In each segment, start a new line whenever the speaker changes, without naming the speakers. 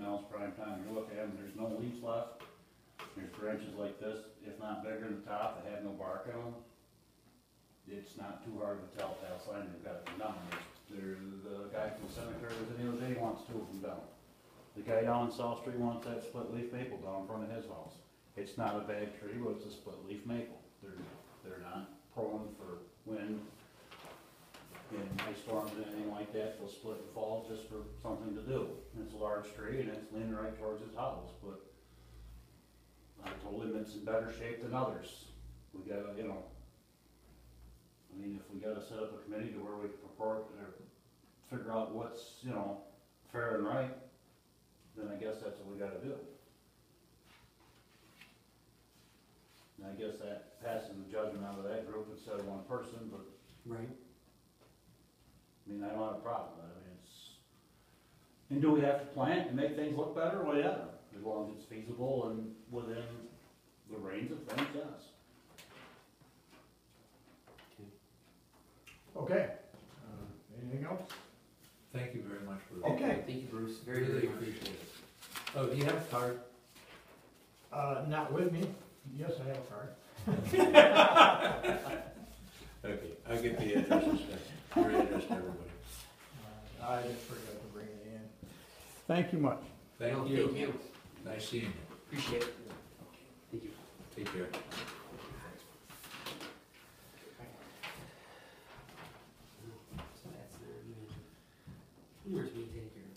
now it's prime time, you look at them, there's no leaves left. There's branches like this, if not bigger than the top, that have no bark on them. It's not too hard to tell, that's why they've got them down, there, the guy from the cemetery was in the other day, wants two of them down. The guy down on South Street wants that split leaf maple down in front of his house. It's not a bad tree, but it's a split leaf maple. They're, they're not prone for wind and ice storms and anything like that. They'll split and fall just for something to do. And it's a large tree and it's leaning right towards his house, but I told him it's in better shape than others. We gotta, you know, I mean, if we gotta set up a committee to where we can purport or figure out what's, you know, fair and right, then I guess that's what we gotta do. And I guess that passes the judgment out of that group instead of one person, but,
Right.
I mean, I don't have a problem, with it. I mean, it's. And do we have to plant and make things look better? Well, yeah, as long as it's feasible and within the range of things, yes.
Okay, uh, anything else?
Thank you very much, Bruce.
Okay,
Thank you, Bruce, very,
Really
very much.
appreciate it. Oh, do you have a card?
uh, not with me, yes, I have a card.
Okay, I'll get the addresses, your address to everybody.
Uh, I just forgot to bring it in. Thank you much.
Thank
No, Thank
you.
you,
Nice seeing you.
appreciate it. Thank you.
Take care.
So that's uh, their meeting. Where's me take care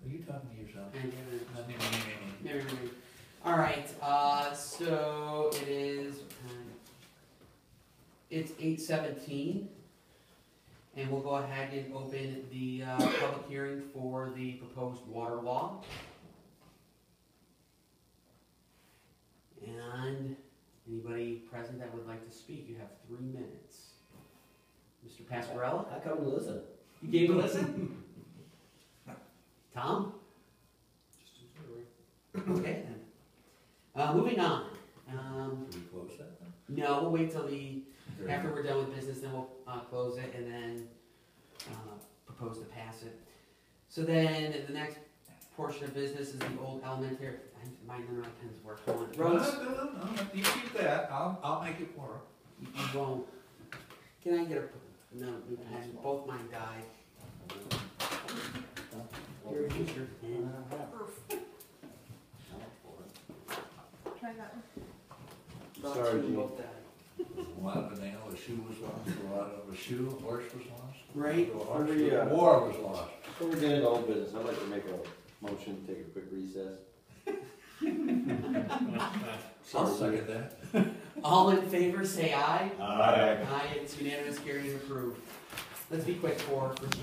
Are you talking to yourself?
of? And then-
Not me, me, me, me.
Never mind. All right. Uh, so it is. what time? It's eight seventeen, and we'll go ahead and open the uh, public hearing for the proposed water law. And anybody present that would like to speak, you have three minutes. Mr. Pasquarella,
I come to listen.
you gave a listen. Tom. Okay then. Uh, moving on. Um,
Should we close that then?
no, we'll wait till the, after we're done with business, then we'll, uh, close it and then, uh, propose to pass it. So then, the next portion of business is the old elementary, I- my number of pens work on.
No,
Roads,
no, no, no, you keep that, I'll, I'll make it work.
you won't. Can I get a, no, new pen? both mine died. Here, use your pen.
Try that one.
About
Sorry,
two,
Gene.
both died.
A lot of a nail, a shoe was lost, a lot of a shoe, a horse was lost.
Right?
A horse,
Pretty, uh,
a war was lost.
Before we get into old business, I'd like to make a motion, to take a quick recess.
I'll second that.
All in favor, say aye.
Aye.
Aye, it's unanimous, carried and approved. Let's be quick for, for